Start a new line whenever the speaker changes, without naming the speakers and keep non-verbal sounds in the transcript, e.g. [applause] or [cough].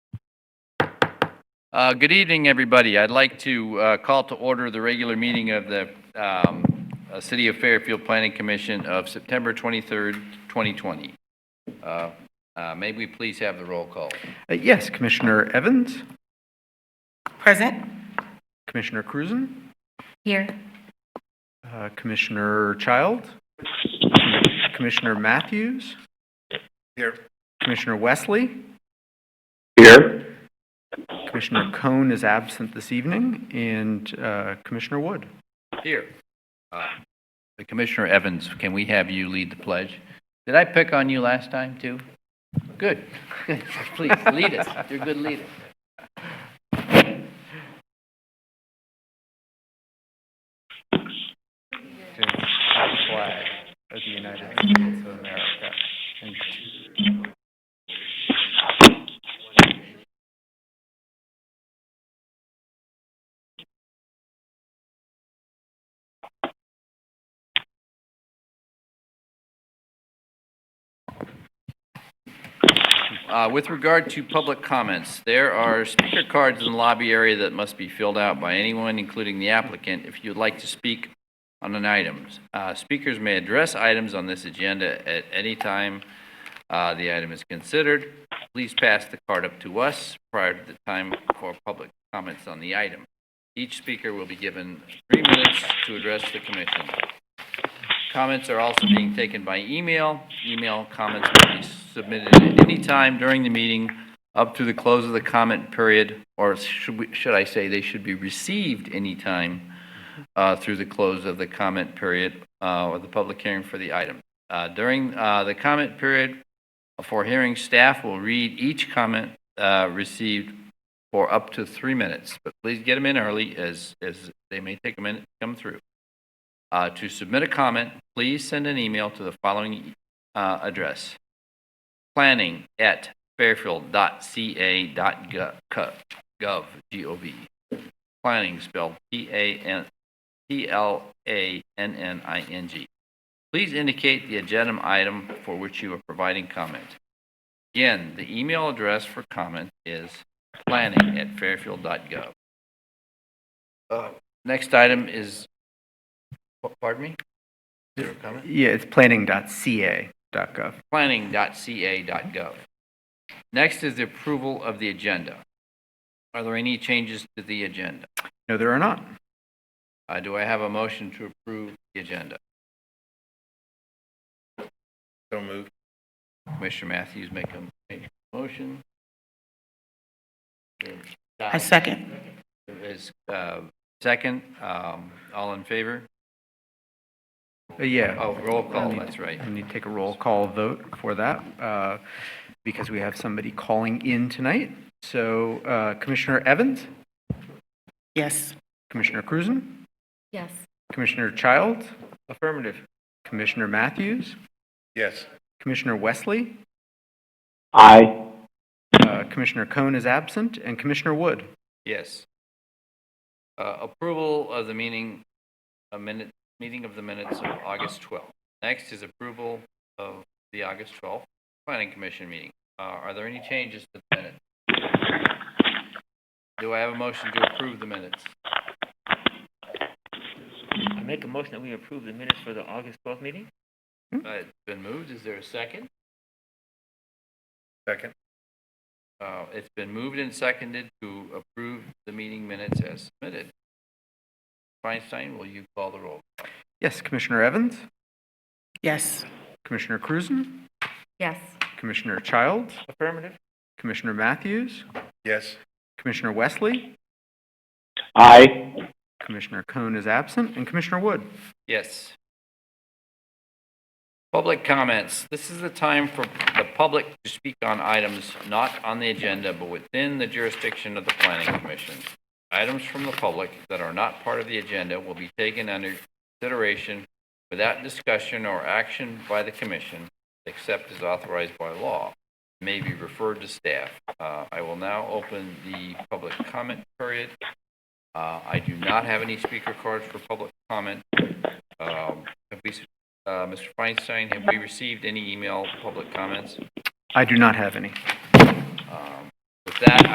Uh, Good evening, everybody. I'd like to uh, call to order the regular meeting of the um, uh, City of Fairfield Planning Commission of September 23rd, 2020. Uh, uh, May we please have the roll call?
Uh, Yes, Commissioner Evans,
Present.
Commissioner Cruzen,
Here.
uh, Commissioner Child, Commissioner Matthews. Here. Commissioner Wesley.
Here.
Commissioner Cohn is absent this evening, and uh, Commissioner Wood.
Here. Uh, Commissioner Evans, can we have you lead the pledge? Did I pick on you last time, too? Good. [laughs] Please, lead us. You're a good leader.
To the flag of the United States of America and
Uh, With regard to public comments, there are speaker cards in the lobby area that must be filled out by anyone, including the applicant, if you'd like to speak on an item. Uh, Speakers may address items on this agenda at any time uh, the item is considered. Please pass the card up to us prior to the time for public comments on the item. Each speaker will be given three minutes to address the commission. Comments are also being taken by email. Email comments may be submitted at any time during the meeting up to the close of the comment period, or should we, should I say, they should be received anytime uh, through the close of the comment period uh, or the public hearing for the item. Uh, During uh, the comment period uh, for hearing, staff will read each comment uh, received for up to three minutes, but please get them in early as, as they may take a minute to come through. Uh, To submit a comment, please send an email to the following uh, address: planning@fairfield.ca.gov, G-O-V. Planning spelled P-A-N, P-L-A-N-N-I-N-G. Please indicate the agenda item for which you are providing comment. Again, the email address for comment is planning@fairfield.gov. Uh, Next item is Pa- Pardon me? Is there a comment?
Yeah, it's planning.ca.gov.
Planning.ca.gov. Next is the approval of the agenda. Are there any changes to the agenda?
No, there are not.
Uh, Do I have a motion to approve the agenda? So moved. Commissioner Matthews make a make a motion.
I second.
Is, uh, Second, um, all in favor?
Uh, Yeah.
Oh, roll call, that's right.
I need to take a roll call vote for that uh, because we have somebody calling in tonight. So uh, Commissioner Evans,
Yes.
Commissioner Cruzen,
Yes.
Commissioner Child. Affirmative. Commissioner Matthews,
Yes.
Commissioner Wesley,
Aye.
uh, Commissioner Cohn is absent, and Commissioner Wood.
Yes. Uh, Approval of the meeting, a minute, meeting of the minutes of August 12th. Next is approval of the August 12th Planning Commission meeting. Uh, Are there any changes to the minutes? Do I have a motion to approve the minutes?
I make a motion that we approve the minutes for the August twelfth meeting?
Uh, It's been moved, is there a second?
Second.
Uh, It's been moved and seconded to approve the meeting minutes as submitted. Feinstein, will you call the roll?
Yes, Commissioner Evans,
Yes.
Commissioner Cruzen,
Yes.
Commissioner Child,
Affirmative?
Commissioner Matthews,
Yes.
Commissioner Wesley,
Aye.
Commissioner Cohn is absent, and Commissioner Wood.
Yes. Public comments. This is the time for the public to speak on items not on the agenda but within the jurisdiction of the planning commission. Items from the public that are not part of the agenda will be taken under consideration without discussion or action by the commission, except as authorized by law, may be referred to staff. Uh, I will now open the public comment period. Uh, I do not have any speaker cards for public comment. Um, Have we, uh, Mr. Feinstein, have we received any email public comments?
I do not have any.
Um, With that,